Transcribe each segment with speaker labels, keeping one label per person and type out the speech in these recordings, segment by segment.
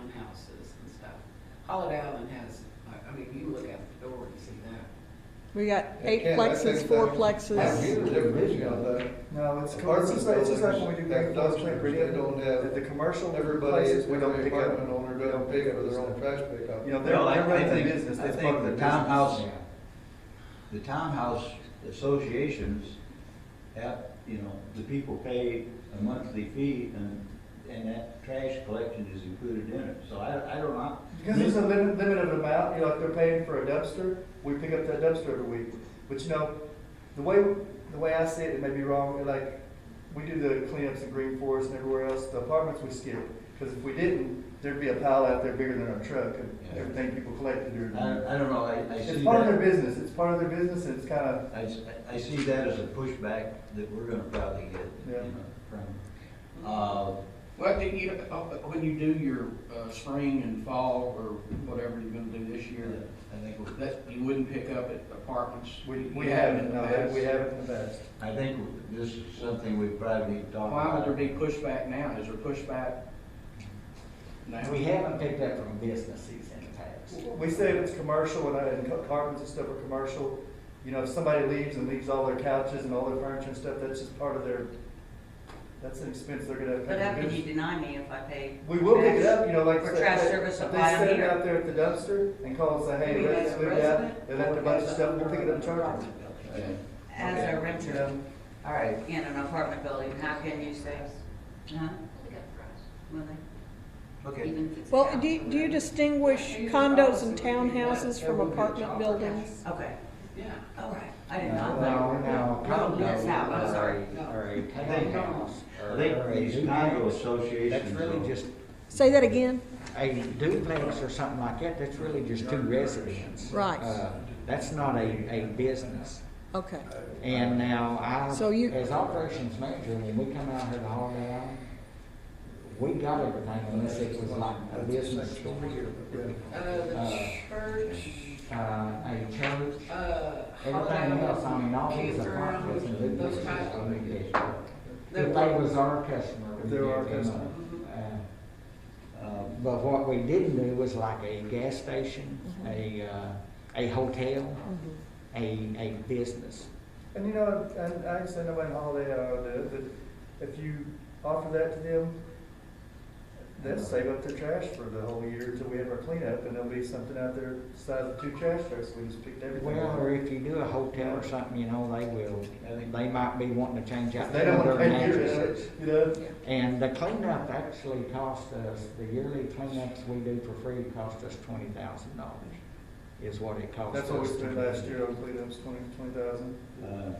Speaker 1: townhouses and stuff. Holiday Island has, I- I mean, you look out the door and see that.
Speaker 2: We got
Speaker 3: They
Speaker 2: eight
Speaker 3: can't, I
Speaker 2: plexes,
Speaker 3: think
Speaker 2: four
Speaker 3: that- That's
Speaker 2: plexes.
Speaker 3: either division of the
Speaker 4: No, it's, it's
Speaker 3: apartment
Speaker 4: just like, it's just like when we do.
Speaker 3: buildings, that
Speaker 4: the floor
Speaker 3: doesn't
Speaker 4: plan
Speaker 3: really
Speaker 4: review,
Speaker 3: don't have-
Speaker 4: that The commercial.
Speaker 3: Everybody,
Speaker 4: places,
Speaker 3: every
Speaker 4: pick up-
Speaker 3: apartment owner
Speaker 4: we
Speaker 3: doesn't pay for
Speaker 4: up
Speaker 3: their own
Speaker 4: stuff.
Speaker 3: trash pickup.
Speaker 4: You know, they're,
Speaker 5: Well, I-
Speaker 4: they're
Speaker 5: I
Speaker 4: running their
Speaker 5: think-
Speaker 4: business,
Speaker 5: I
Speaker 4: that's part
Speaker 5: think
Speaker 4: of
Speaker 5: the
Speaker 4: their
Speaker 5: townhouse,
Speaker 4: business.
Speaker 5: the townhouse associations have, you know, the people pay a monthly fee and, and that trash collection is included in it, so I, I don't know.
Speaker 4: Because there's a limit, limited amount, you know, like they're paying for a dumpster, we pick up that dumpster every week. But you know, the way, the way I see it, it may be wrong, like, we do the cleanups in Green Forest and everywhere else, the apartments we skip. Because if we didn't, there'd be a pile out there bigger than our truck and
Speaker 5: Yeah.
Speaker 4: everything people collected during. the-
Speaker 5: I, I don't know, I, I
Speaker 4: It's
Speaker 5: see
Speaker 4: part of their
Speaker 5: that,
Speaker 4: business, it's part of their business and it's kind of,
Speaker 5: I, s- I see that as a pushback that we're gonna probably get, you
Speaker 4: Yeah.
Speaker 5: know, from, uh,
Speaker 6: Well, do you, uh, when you do your, uh, spring and fall or whatever you're gonna do this year,
Speaker 5: I think, we're-
Speaker 6: that, you wouldn't pick up at apartments?
Speaker 4: we, we
Speaker 6: You have in
Speaker 4: haven't,
Speaker 6: the
Speaker 4: no,
Speaker 6: past.
Speaker 4: we haven't in the past.
Speaker 5: I think this is something we probably need to talk about.
Speaker 6: Why would there be pushback now? Is there pushback now?
Speaker 7: We haven't picked up from businesses in the past.
Speaker 4: We say if it's commercial and, and apartments and stuff are commercial, you know, if somebody leaves and leaves all their couches and all their furniture and stuff, that's just part of their, that's an expense they're gonna have. to
Speaker 8: But how
Speaker 4: pay.
Speaker 8: can you deny me if I pay?
Speaker 4: We will pick it
Speaker 8: trash?
Speaker 4: up, you know, like.
Speaker 8: For
Speaker 4: I said,
Speaker 8: trash
Speaker 4: if they-
Speaker 8: service
Speaker 4: if
Speaker 8: while I'm
Speaker 4: They set it
Speaker 8: here.
Speaker 4: out there at the dumpster and call and say, hey,
Speaker 8: We
Speaker 4: let's
Speaker 8: as a
Speaker 4: leave it out,
Speaker 8: resident
Speaker 4: they left a
Speaker 8: or
Speaker 4: bunch of
Speaker 8: as
Speaker 4: stuff, we'll pick it up and charge
Speaker 8: apartment
Speaker 4: them.
Speaker 8: building?
Speaker 6: Okay.
Speaker 8: As a
Speaker 4: You
Speaker 8: renter
Speaker 4: know,
Speaker 7: All right,
Speaker 8: in an apartment building, how can you say, huh? Will they?
Speaker 5: Okay,
Speaker 8: Even if it's
Speaker 2: Well,
Speaker 8: down.
Speaker 2: do, you- do you distinguish condos and townhouses from apartment buildings?
Speaker 8: Okay,
Speaker 1: Yeah.
Speaker 8: all right, I did
Speaker 7: no,
Speaker 8: not
Speaker 7: no,
Speaker 8: know.
Speaker 7: no,
Speaker 8: Yes, no, I'm
Speaker 7: condos
Speaker 8: sorry.
Speaker 7: or a, or a
Speaker 5: I think-
Speaker 7: townhouse. or-
Speaker 5: I
Speaker 7: or
Speaker 5: think
Speaker 7: a
Speaker 5: these
Speaker 7: duplex,
Speaker 5: condo associations.
Speaker 7: That's really
Speaker 5: though-
Speaker 7: just,
Speaker 2: Say that again?
Speaker 7: a duplex or something like that, that's really just two residents.
Speaker 2: Right.
Speaker 7: Uh, That's not a, a business.
Speaker 2: Okay.
Speaker 7: And now I,
Speaker 2: So you-
Speaker 7: as operations manager, when we come out here to Holiday Island, we got everything unless it was like a business,
Speaker 1: Uh, the
Speaker 7: Uh,
Speaker 1: church,
Speaker 7: uh, a church,
Speaker 1: uh,
Speaker 7: everything
Speaker 1: Holiday
Speaker 7: else, I mean, all
Speaker 1: Island,
Speaker 7: these apartments and
Speaker 1: campground, those
Speaker 7: duplexes.
Speaker 1: types
Speaker 7: I
Speaker 1: of.
Speaker 7: mean, they- If they was our customer,
Speaker 4: If
Speaker 7: we
Speaker 4: they were our
Speaker 7: gave them
Speaker 4: customer.
Speaker 1: Mm-hmm.
Speaker 7: a, uh, uh, But what we didn't do was like a gas station,
Speaker 2: Mm-hmm.
Speaker 7: a, uh, a
Speaker 2: Mhm.
Speaker 7: hotel, a, a business.
Speaker 4: And you know, and I understand nobody on holiday, uh, the, the, if you offer that to them, they'll save up their trash for the whole year until we have our cleanup, and there'll be something out there size of two trash trucks, we just picked everything
Speaker 7: Well,
Speaker 4: up.
Speaker 7: or if you do a hotel or something, you know, they will, they might be wanting to change out
Speaker 4: They don't
Speaker 7: their
Speaker 4: wanna pay your,
Speaker 7: mattresses.
Speaker 4: you know,
Speaker 7: And the cleanup actually cost us, the yearly cleanups we do for free cost us twenty thousand dollars, is what it cost us.
Speaker 4: that's what we
Speaker 7: to
Speaker 4: spent
Speaker 7: do.
Speaker 4: last year on cleanups, twenty, twenty thousand.
Speaker 5: Uh,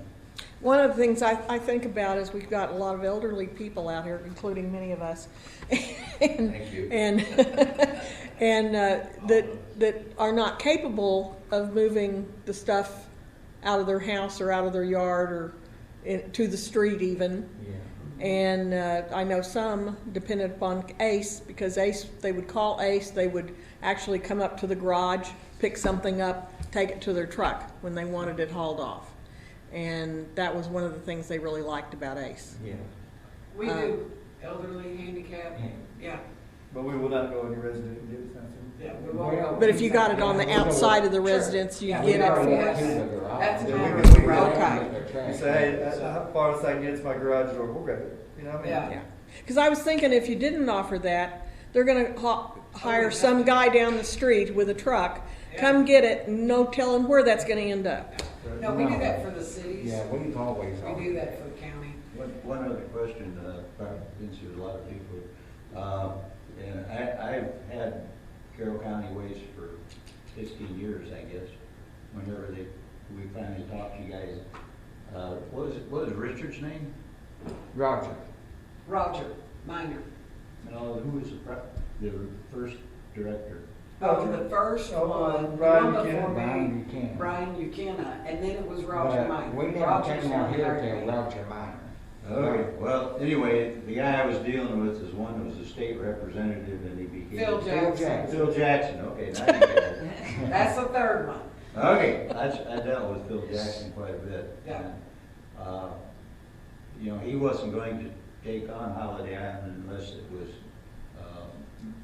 Speaker 2: One of the things I, I think about is we've got a lot of elderly people out here, including many of us. And,
Speaker 5: Thank you.
Speaker 2: and, and, uh, that, that are not capable of moving the stuff out of their house or out of their yard or in, to the street even.
Speaker 7: Yeah.
Speaker 2: And uh, I know some depended upon Ace, because Ace, they would call Ace, they would actually come up to the garage, pick something up, take it to their truck when they wanted it hauled off. And that was one of the things they really liked about Ace.
Speaker 7: Yeah.
Speaker 1: We do elderly, handicapped, yeah,
Speaker 4: But we will not go any resident and do something.
Speaker 1: yeah. we won't-
Speaker 7: Well,
Speaker 2: But if you got it on the outside of the residence, you
Speaker 1: Yeah,
Speaker 2: get
Speaker 1: we
Speaker 2: it
Speaker 1: are,
Speaker 2: for
Speaker 1: yes.
Speaker 2: us.
Speaker 1: That's a
Speaker 4: Yeah, we
Speaker 1: matter
Speaker 4: can-
Speaker 1: of
Speaker 4: we can-
Speaker 1: right.
Speaker 4: You say, hey, uh, how far as I can get to my garage door, we'll grab it, you know what I mean?
Speaker 1: Yeah.
Speaker 2: Because I was thinking if you didn't offer that, they're gonna ha- hire some guy down the street with a truck, come get it, no telling where that's gonna end up.
Speaker 1: No, we do that for the cities,
Speaker 7: Yeah, we've always.
Speaker 1: we do that for the county.
Speaker 5: One, one other question, uh, probably been to a lot of people, uh, and I, I've had Carroll County Waste for fifteen years, I guess, whenever they, we finally talked to you guys. Uh, what was, what was Richard's name?
Speaker 7: Roger.
Speaker 1: Roger, minor,
Speaker 5: No, who was the, pro- the first director?
Speaker 1: oh, the first
Speaker 4: Oh,
Speaker 1: one, the one
Speaker 4: Brian
Speaker 1: before
Speaker 4: Buchanan.
Speaker 7: Brian
Speaker 1: me,
Speaker 7: Buchanan.
Speaker 1: Brian Buchanan, and then it was Roger
Speaker 7: But
Speaker 1: Minor.
Speaker 7: We didn't
Speaker 1: Roger's
Speaker 7: came out
Speaker 1: one
Speaker 7: here
Speaker 1: hired me.
Speaker 7: till Roger Minor.
Speaker 5: Oh,
Speaker 3: Oh,
Speaker 5: Okay, well, anyway, the guy I was dealing with is one who was a state representative and he became.
Speaker 1: Phil Jackson,
Speaker 7: Jackson.
Speaker 5: Phil Jackson, okay, now you get it.
Speaker 1: that's the third one.
Speaker 5: Okay, I, I dealt with Phil Jackson quite a bit.
Speaker 1: Yeah.
Speaker 5: Uh, You know, he wasn't going to take on Holiday Island unless it was